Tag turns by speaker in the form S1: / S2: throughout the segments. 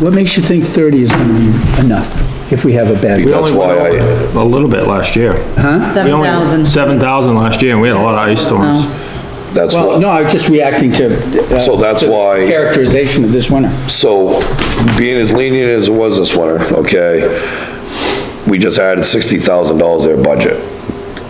S1: What makes you think 30 is gonna be enough if we have a bad?
S2: We only
S3: That's why
S2: went
S3: I,
S2: over A little bit last year. We
S4: Seven
S2: only-
S4: thousand.
S2: 7,000 last year, and we had a lot of ice
S1: Oh.
S2: storms.
S3: that's
S1: Well,
S3: why,
S1: no, I was just reacting to. uh,
S3: So that's
S1: the
S3: why-
S1: Characterization of this winter.
S3: so being as lenient as it was this winter, okay? We just added sixty thousand dollars to their budget.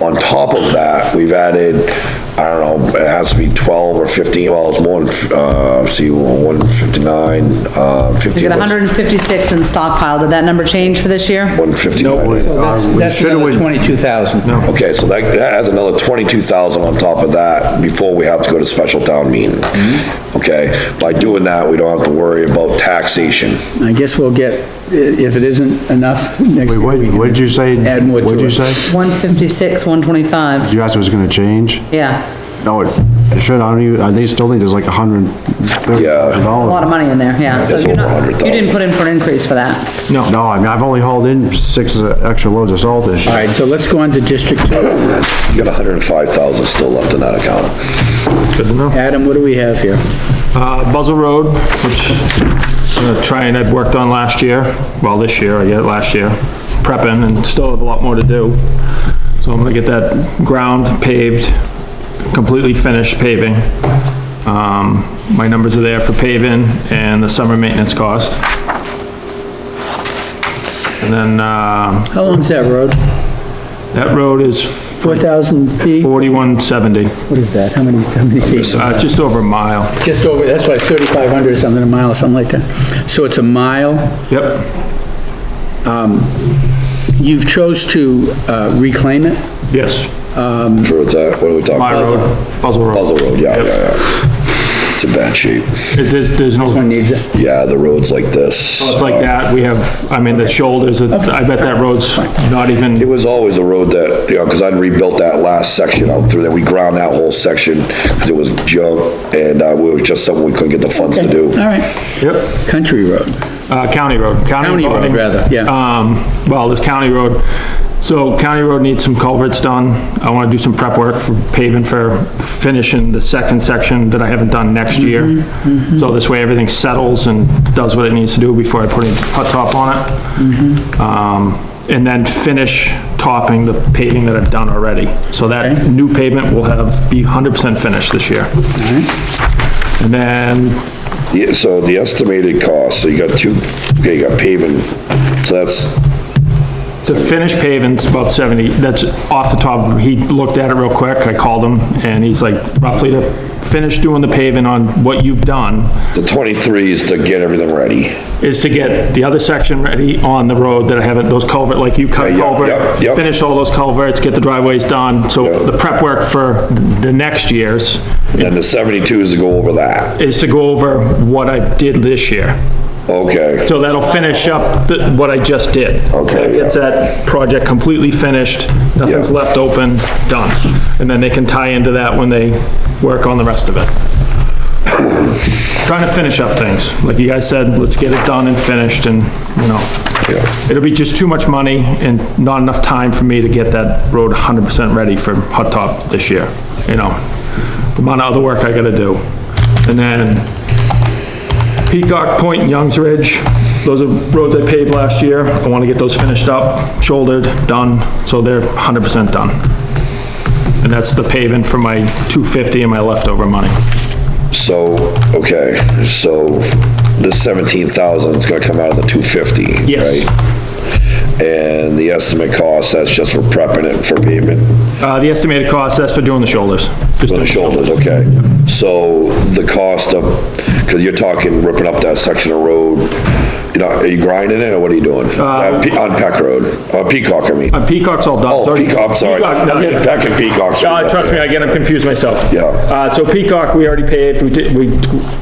S3: On top of that, we've added, I don't know, it has to be twelve or fifteen, well, it's more than, uh, see, one fifty-nine, uh,
S4: You
S3: fifteen.
S4: got hundred and fifty-six in stockpile. Did that number change for this year?
S3: One fifty-nine.
S1: So that's,
S2: Uh, we
S1: that's
S2: should've
S1: another
S2: went-
S1: 22,000.
S2: No.
S3: Okay, so that, that adds another twenty-two thousand on top of that before we have to go to special town meeting. Okay, by doing that, we don't have to worry about taxation.
S1: I guess we'll get, i- if it isn't enough next
S5: Wait,
S1: year.
S5: what,
S1: we can-
S5: what did you say?
S1: Add more to
S5: What did you
S1: it.
S5: say?
S4: One fifty-six, one twenty-five.
S5: You asked if it was gonna change?
S4: Yeah,
S5: No, it it should, I don't even, uh, they still think there's like a hundred thirty thousand
S4: a lot
S5: dollars.
S4: of money in there, yeah. So
S3: That's
S4: you're
S3: over
S4: not, you
S3: 100,000.
S4: didn't put in for an increase for that.
S5: No, I mean, I've only hauled in six uh, extra loads of salt this
S1: All
S5: year.
S1: right, so let's go on to District 2.
S3: You got hundred and five thousand still left in that account.
S2: Good to know.
S1: Adam, what do we have here?
S2: Uh, Buzzell Road, which I'm gonna try and I'd worked on last year, well, this year, I get last year, prepping and still have a lot more to do. So I'm gonna get that ground paved, completely finished paving. Um, my numbers are there for paving and the summer maintenance cost. And then, uh,
S1: How long's that road?
S2: that road is
S1: 4,000 feet?
S2: forty-one seventy,
S1: What is that? How many, how many feet?
S2: uh, just over a mile.
S1: Just over, that's why 3,500 or something, a mile, something like that. So it's a mile?
S2: Yep,
S1: You've chose to uh, reclaim it?
S2: yes,
S3: Sure, it's at, what are we talking
S2: my
S3: about?
S2: road, Buzzell Road.
S3: Buzzell Road, yeah, yeah, yeah. It's in bad shape.
S2: It- There's, there's no.
S1: One needs it.
S3: Yeah, the road's like this.
S2: Oh,
S3: Uh,
S2: It's like that, we have, I mean, the shoulders, I bet that road's not
S3: It
S2: even,
S3: was always a road that, you know, because I'd rebuilt that last section out through there. We ground that whole section because it was junk and, uh, it was just something we couldn't get the funds to do.
S1: All right,
S2: yep,
S1: country road,
S2: uh, county road.
S1: County road,
S2: roading.
S1: rather, yeah.
S2: Um, well, this county road, so county road needs some culverts done. I wanna do some prep work for paving for finishing the second section that I haven't done next year.
S1: Mm-hmm,
S2: So this way everything settles and does what it needs to do before I put any hot top on
S1: Mm-hmm.
S2: it. Um, and then finish topping the paving that I've done already. So that new pavement will have, be hundred percent finished this year. And then
S3: Yeah, so the estimated cost, so you got two, okay, you got paving, so that's,
S2: The finished pavement's about 70, that's off the top, he looked at it real quick, I called him, and he's like, roughly to finish doing the paving on what you've done
S3: the twenty-three is to get everything ready.
S2: is to get the other section ready on the road that I haven't, those culvert, like you cut
S3: Yeah, yeah,
S2: culvert,
S3: yeah, yeah.
S2: finish all those culverts, get the driveways done, so
S3: Yeah.
S2: the prep work for the next years
S3: Then the seventy-two is to go over that.
S2: is to go over what I did this year.
S3: Okay,
S2: So that'll finish up the- what I just did.
S3: Okay,
S2: That gets
S3: yeah.
S2: that project completely finished, nothing's
S3: Yeah.
S2: left open, done. And then they can tie into that when they work on the rest of it. Trying to finish up things. Like you guys said, let's get it done and finished and, you know,
S3: yeah,
S2: it'll be just too much money and not enough time for me to get that road 100% ready for hot top this year, you know? The amount of other work I gotta do. And then Peacock Point, and Youngs Ridge, those are roads I paved last year. I want to get those finished up, shouldered, done, so they're 100% done. And that's the paving for my 250 and my leftover money.
S3: so, okay, so the seventeen thousand is gonna come out of the two fifty,
S2: Yes.
S3: right? And the estimate cost, that's just for prepping it for pavement,
S2: Uh, the estimated cost, that's for doing the shoulders. Just
S3: for
S2: doing
S3: the shoulders, okay? So the cost of, because you're talking ripping up that section of road, you know, are you grinding it or what are you doing? Uh, Pe- On Peck Road, uh, Peacock, I mean.
S2: Uh, Peacock's all done. It's
S3: Oh,
S2: already-
S3: Peacock, I'm sorry.
S2: Peacock, no,
S3: I'm
S2: yeah.
S3: getting Peck and Peacock.
S2: Uh, trust me, I get, I'm confused myself.
S3: Yeah.
S2: Uh, so Peacock, we already paved, we did, we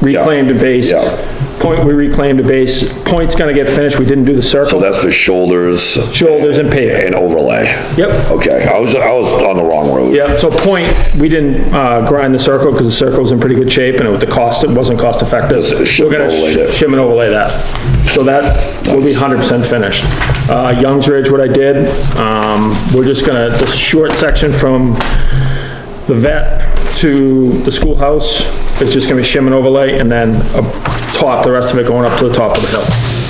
S2: reclaimed a base.
S3: Yeah.
S2: Point, we reclaimed a base. Point's gonna get finished, we didn't do the
S3: So
S2: circle.
S3: that's the shoulders
S2: Shoulders and paving.
S3: and overlay.
S2: Yep.
S3: Okay, I was, I was on the wrong road.
S2: Yeah, so point, we didn't uh, grind the circle because the circle's in pretty good shape and with the cost, it wasn't cost effective.
S3: Just shim
S2: We're gonna
S3: and overlay
S2: sh-
S3: that.
S2: shim and overlay that. So that will be 100% finished. Uh, Youngs Ridge, what I did, um, we're just gonna, the short section from the vet to the schoolhouse, It's just gonna be shim and overlay, and then up top, the rest of it going up to the top of the hill.